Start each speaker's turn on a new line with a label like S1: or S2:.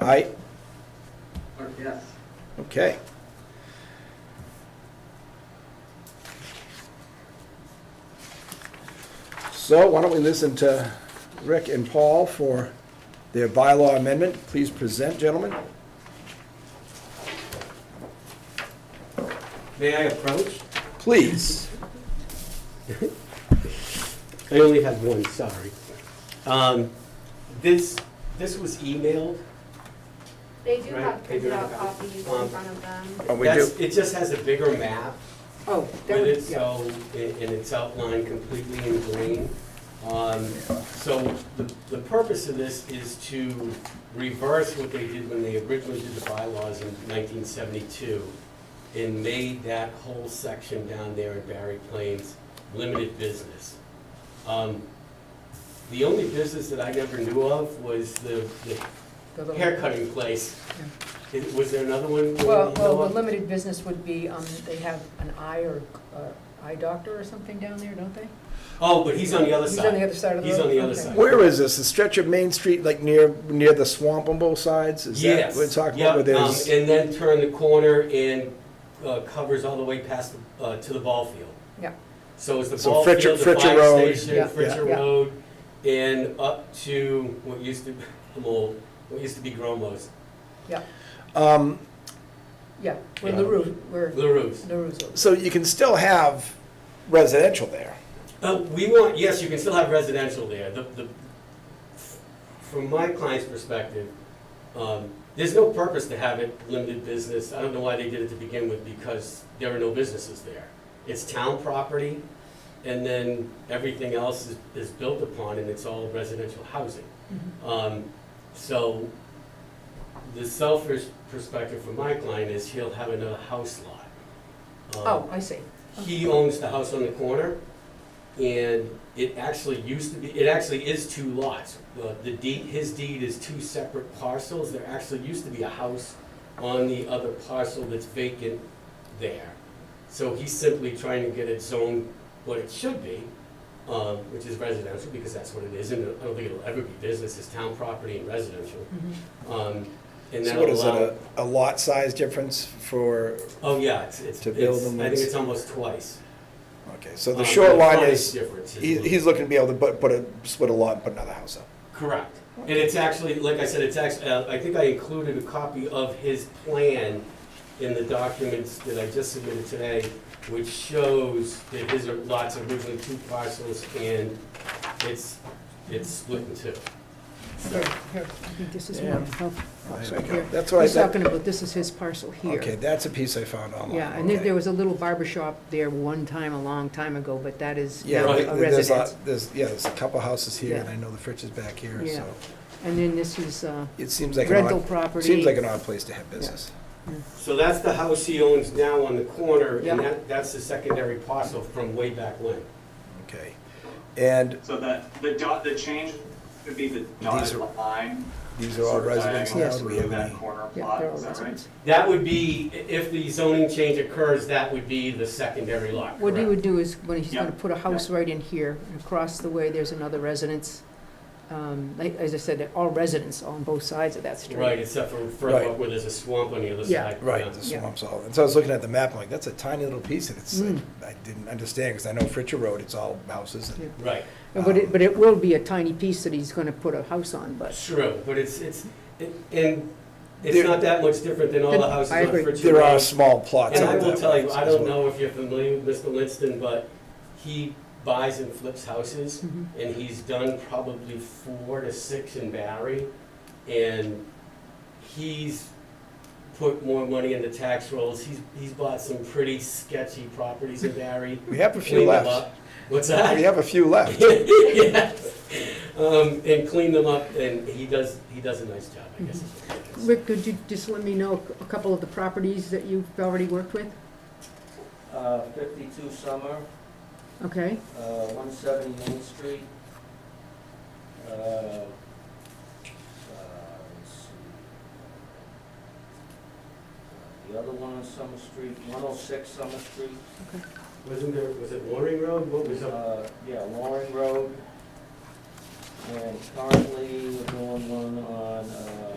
S1: Aye,
S2: Clerk, yes.
S1: okay. So why don't we listen to Rick and Paul for their bylaw amendment? Please present, gentlemen.
S3: May I approach?
S1: Please.
S3: I only have one, sorry. Um, This, this was emailed.
S4: They do
S3: Right,
S4: have
S3: they do
S4: printed
S3: have
S4: out
S3: a copy.
S4: copies
S3: Um,
S4: in front of them.
S1: Oh, we
S3: That's-
S1: do.
S3: It just has a bigger map
S5: Oh,
S3: with
S5: that would,
S3: it,
S5: yeah.
S3: so, and and it's outlined completely in green. Um, So the, the purpose of this is to reverse what they did when they originally did the bylaws in 1972 and made that whole section down there in Barry Plains limited business. Um, The only business that I never knew of was the the hair cutting place. Is- Was there another one? that you
S5: Well,
S3: know
S5: well,
S3: of?
S5: the limited business would be, um, they have an eye or, or eye doctor or something down there, don't they?
S3: Oh, but he's on the other
S5: He's
S3: side.
S5: on the other side of the
S3: He's
S5: road?
S3: on the other
S5: Okay.
S3: side.
S1: Where is this? The stretch of Main Street, like near, near the swamp on both sides? Is that
S3: Yes.
S1: what We're talking
S3: Yep,
S1: about where there's,
S3: um, And then turn the corner and uh, covers all the way past, the- uh, to the ball field.
S5: Yeah.
S3: So it's the
S1: So
S3: ball
S1: Fritcher-
S3: field, the
S1: Fritcher
S3: fire
S1: Road.
S3: station,
S5: Yeah,
S3: Fritcher
S5: yeah.
S3: Road, and up to what used to, I'm old, what used to be Gromos,
S1: um,
S5: Yeah, where
S3: Yeah.
S5: LaRue, where
S3: LaRue's.
S5: LaRue's. over.
S1: so you can still have residential there.
S3: Uh, we want, yes, you can still have residential there. The, the, from my client's perspective, um, there's no purpose to have it limited business. I don't know why they did it to begin with, because there are no businesses there. It's town property, and then everything else is, is built upon, and it's all residential housing.
S5: Mm-hmm.
S3: Um, so, the selfish perspective from my client is he'll have another house lot. Um,
S5: Oh, I see.
S3: he owns the house on the corner, and it actually used to be, it actually is two lots. The- The deed, his deed is two separate parcels, there actually used to be a house on the other parcel that's vacant there. So he's simply trying to get it zoned what it should be, um, which is residential, because that's what it is, and I don't think it'll ever be business, it's town property and residential.
S5: Mhm.
S3: Um, And
S1: So
S3: that'll
S1: what is it, a,
S3: allow,
S1: a lot size difference for,
S3: oh yeah, it's, it's,
S1: to build
S3: it's-
S1: them,
S3: I think
S1: it's-
S3: it's almost twice.
S1: okay, so the
S3: Um,
S1: short line
S3: frontage
S1: is,
S3: difference is
S1: he,
S3: little.
S1: he's looking to be able to put, put a, split a lot and put another house up.
S3: Correct. And it's actually, like I said, it's actually, I think I included a copy of his plan in the documents that I just submitted today, which shows that his lots are originally two parcels and it's, it's split in two.
S5: Here, here, I think this is
S1: Yeah.
S5: one. Oh,
S1: There you go.
S5: here.
S1: That's what I
S5: He's
S1: said.
S5: talking about, this is his parcel here.
S1: Okay, that's a piece I found online.
S5: Yeah, and there,
S1: okay.
S5: there was a little barber shop there one time, a long time ago, but that is
S1: Yeah,
S5: now
S3: right,
S5: a
S1: there- there's,
S5: residence.
S1: lot- there's, yeah, there's a couple houses here,
S5: Yeah.
S1: and I know the Fritz is back here,
S5: Yeah.
S1: so
S5: And then this is, uh,
S1: it seems like an
S5: rental
S1: odd,
S5: property.
S1: seems like an odd place to have business.
S3: So that's the house he owns now on the corner
S5: Yeah.
S3: and that, that's the secondary parcel from way back when.
S1: Okay, and
S2: So that, the dot, the change would be the
S1: These
S2: dotted
S1: are-
S2: line.
S1: these are all residents
S5: diagonal
S1: now.
S5: Yes.
S1: Do we have
S2: That
S1: any?
S2: corner
S5: Yeah,
S2: plot,
S5: they're all
S2: is that right?
S5: residents.
S3: That would be, i- if the zoning change occurs, that would be the secondary lot,
S5: What he
S3: correct?
S5: would do is, when he's gonna
S2: Yeah,
S5: put a house right in here, and across the way, there's another residence. Um, like, as I said, they're all residents on both sides of that street.
S3: Right, except for
S1: Right.
S3: further up where there's a swamp on the other
S5: Yeah.
S3: side.
S1: Right, the
S5: Yeah.
S1: swamp's all, and so I was looking at the map, I'm like, that's a tiny little piece, and it's,
S5: Mm.
S1: I didn't understand, because I know Fritcher Road, it's all houses, and
S5: Yeah.
S3: Right,
S5: And But it, but it will be a tiny piece that he's gonna put a house on, but,
S3: true, but it's, it's, it- and
S1: There-
S3: it's not that much different than all the
S5: I
S3: houses on
S5: agree.
S3: Fritz
S1: there are
S3: Road.
S1: small plots
S3: And I
S1: out
S3: will
S1: that
S3: tell
S1: way.
S3: you, I don't know if you're familiar with Mr. Linston, but he buys and flips houses,
S5: Mhm.
S1: Mm-hmm.
S3: and he's done probably four to six in Barry, and he's put more money into tax rolls, he's, he's bought some pretty sketchy properties in Barry.
S1: We have a few
S3: cleaned them
S1: left,
S3: up. What's that?
S1: we have a few left.
S3: Yes. Um, and clean them up, and he does, he does a nice job, I guess. is what it is.
S5: Mm-hmm. Rick, could you just let me know a couple of the properties that you've already worked with?
S6: Uh, 52 Summer,
S5: Okay,
S6: uh, 170 Main Street. uh, uh, let's see, uh, The other one on Summer Street, 106 Summer Street.
S3: Wasn't there, was it Loring Road? What was up?
S6: uh, Yeah, Loring Road. And currently, we're doing one on uh,